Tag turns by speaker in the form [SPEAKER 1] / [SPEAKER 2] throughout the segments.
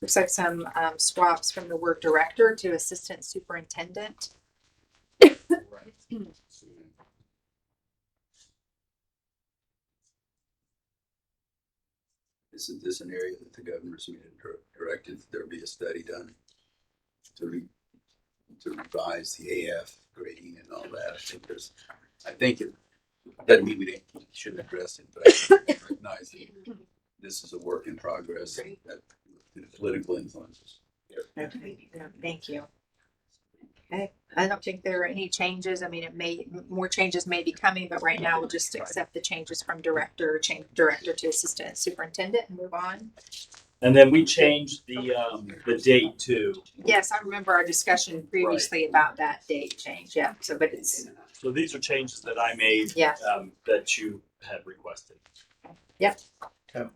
[SPEAKER 1] Looks like some um, swaps from the word director to assistant superintendent.
[SPEAKER 2] Isn't this an area that the governor's meeting dir- directed that there be a study done to re, to revise the AF grading and all that? I think there's, I think it, doesn't mean we didn't, shouldn't address it, but I think we recognize that this is a work in progress and that the political influences.
[SPEAKER 1] Okay, yeah, thank you. Okay, I don't think there are any changes. I mean, it may, more changes may be coming, but right now we'll just accept the changes from director, change director to assistant superintendent and move on.
[SPEAKER 3] And then we changed the, um, the date too.
[SPEAKER 1] Yes, I remember our discussion previously about that date change. Yeah, so but it's,
[SPEAKER 3] So these are changes that I made,
[SPEAKER 1] yeah,
[SPEAKER 3] um, that you had requested.
[SPEAKER 1] Yep.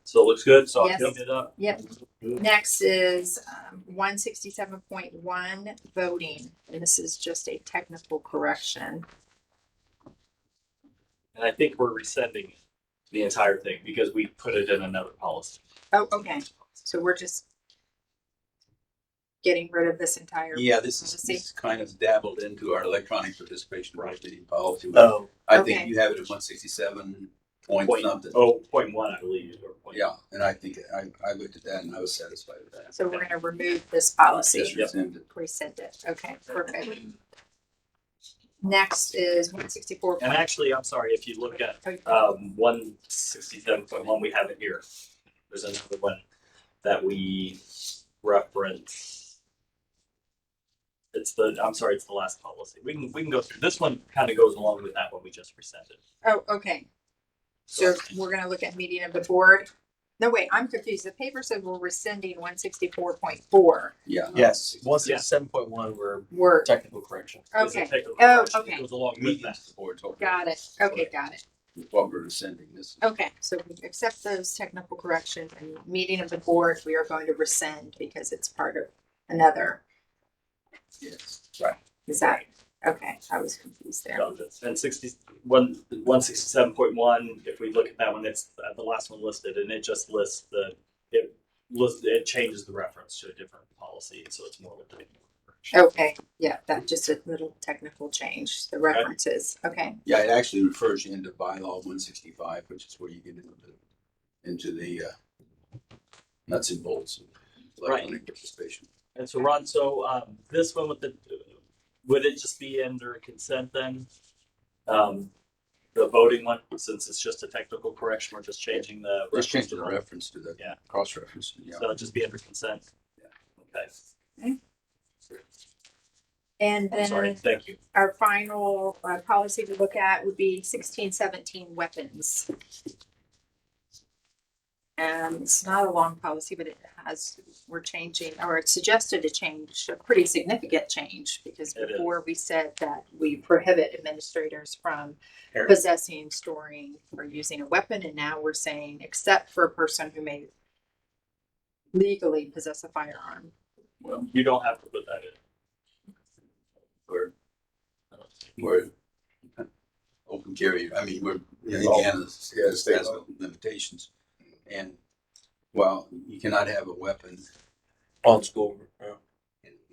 [SPEAKER 3] So it looks good, so I'll
[SPEAKER 1] Yes.
[SPEAKER 3] clean it up.
[SPEAKER 1] yep. Next is um, one sixty-seven point one voting. And this is just a technical correction.
[SPEAKER 3] And I think we're rescinding the entire thing because we put it in another policy.
[SPEAKER 1] Oh, okay. So we're just getting rid of this entire.
[SPEAKER 2] Yeah, this is,
[SPEAKER 1] Policy.
[SPEAKER 2] this is kind of dabbled into our electronic participation in
[SPEAKER 3] Right.
[SPEAKER 2] city policy.
[SPEAKER 3] Oh.
[SPEAKER 2] I
[SPEAKER 1] Okay.
[SPEAKER 2] think you have it at one sixty-seven point
[SPEAKER 3] Point.
[SPEAKER 2] something.
[SPEAKER 3] Oh, point one, I believe, or point.
[SPEAKER 2] Yeah, and I think, I, I looked at that and I was satisfied with that.
[SPEAKER 1] So we're gonna remove this policy,
[SPEAKER 2] Just rescinded.
[SPEAKER 1] rescind it. Okay, perfect. Next is one sixty-four. oh
[SPEAKER 3] And actually, I'm sorry, if you look at um, one sixty-seven point one, we have it here. There's another one that we reference. It's the, I'm sorry, it's the last policy. We can, we can go through, this one kind of goes along with that one we just rescinded.
[SPEAKER 1] Oh, okay. So we're gonna look at meeting of the board. No, wait, I'm confused. The paper said we're rescinding one sixty-four point four.
[SPEAKER 2] Yeah.
[SPEAKER 4] Yes, one sixty-seven point one, we're
[SPEAKER 1] We're,
[SPEAKER 4] technical correction.
[SPEAKER 3] There's a
[SPEAKER 1] okay,
[SPEAKER 3] technical
[SPEAKER 1] Oh,
[SPEAKER 3] correction that
[SPEAKER 1] okay.
[SPEAKER 3] Goes along with that.
[SPEAKER 2] Meetings the board talked about
[SPEAKER 1] got it. Okay, got it.
[SPEAKER 2] what we're rescinding this.
[SPEAKER 1] Okay, so we accept those technical corrections and meeting of the board, we are going to rescind because it's part of another.
[SPEAKER 2] Yes.
[SPEAKER 1] Is that, okay, I was confused there.
[SPEAKER 3] done this. And sixty, one, one sixty-seven point one, if we look at that one, it's uh, the last one listed, and it just lists the, it lists, it changes the reference to a different policy, so it's more of a. technical correction.
[SPEAKER 1] Okay, yeah, that just a little technical change, the references, okay,
[SPEAKER 2] Yeah, it actually refers you into bylaw one sixty-five, which is where you get into the, into the, uh, nuts and bolts of
[SPEAKER 3] Right.
[SPEAKER 2] electronic participation.
[SPEAKER 3] And so Ron, so, um, this one with the, would it just be under consent then? Um, the voting one, since it's just a technical correction, we're just changing the.
[SPEAKER 2] Just
[SPEAKER 3] reference
[SPEAKER 2] change the
[SPEAKER 3] to-
[SPEAKER 2] reference to the
[SPEAKER 3] Yeah.
[SPEAKER 2] cross-reference, yeah.
[SPEAKER 3] So it'd just be under consent?
[SPEAKER 2] Yeah.
[SPEAKER 3] Okay,
[SPEAKER 1] and
[SPEAKER 3] I'm sorry,
[SPEAKER 1] then
[SPEAKER 3] thank you.
[SPEAKER 1] our final uh, policy to look at would be sixteen seventeen weapons. Um, it's not a long policy, but it has, we're changing, or it's suggested a change, a pretty significant change, because
[SPEAKER 3] It is.
[SPEAKER 1] before we said that we prohibit administrators from
[SPEAKER 4] Here.
[SPEAKER 1] possessing, storing, or using a weapon, and now we're saying, except for a person who may legally possess a firearm.
[SPEAKER 3] Well, you don't have to put that in.
[SPEAKER 2] We're,
[SPEAKER 3] I don't think.
[SPEAKER 2] we're open carry, I mean, we're,
[SPEAKER 4] Yeah.
[SPEAKER 2] Indiana has,
[SPEAKER 4] state
[SPEAKER 2] has
[SPEAKER 4] law.
[SPEAKER 2] limitations. And while you cannot have a weapon
[SPEAKER 4] On school.
[SPEAKER 2] in,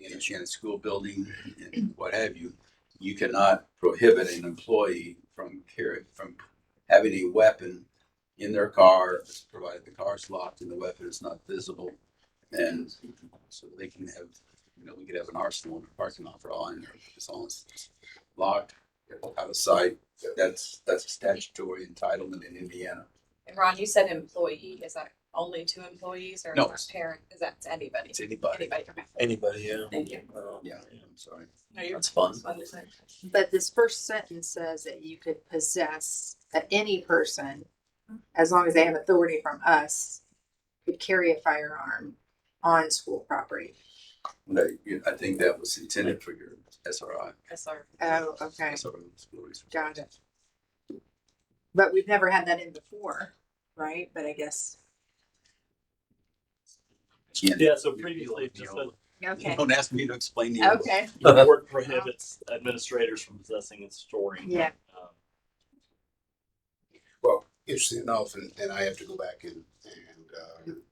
[SPEAKER 2] in a, in a school building and what have you, you cannot prohibit an employee from carry, from having a weapon in their car, provided the car's locked and the weapon is not visible. And so they can have, you know, we could have an arsenal in the parking lot for all, and it's all locked, out of sight. That's, that's a statutory entitlement in Indiana.
[SPEAKER 5] And Ron, you said employee, is that only to employees or is
[SPEAKER 2] No.
[SPEAKER 5] that parent, is that to anybody?
[SPEAKER 2] It's anybody.
[SPEAKER 5] Anybody, okay,
[SPEAKER 4] Anybody, yeah.
[SPEAKER 5] thank you.
[SPEAKER 4] Uh,
[SPEAKER 2] Yeah, I'm sorry.
[SPEAKER 5] No, you're
[SPEAKER 4] That's fun.
[SPEAKER 1] But this first sentence says that you could possess, that any person, as long as they have authority from us, could carry a firearm on school property.
[SPEAKER 2] No, you- I think that was intended for your SRI.
[SPEAKER 5] SR.
[SPEAKER 1] Oh, okay,
[SPEAKER 2] SRO, school resource.
[SPEAKER 1] got it. But we've never had that in before, right? But I guess,
[SPEAKER 2] Again,
[SPEAKER 3] Yeah, so previously, it just said
[SPEAKER 1] okay,
[SPEAKER 2] Don't ask me to explain the.
[SPEAKER 1] okay,
[SPEAKER 3] the board prohibits administrators from possessing and storing.
[SPEAKER 1] yeah,
[SPEAKER 3] um,
[SPEAKER 6] interesting enough, and, and I have to go back and, and, uh,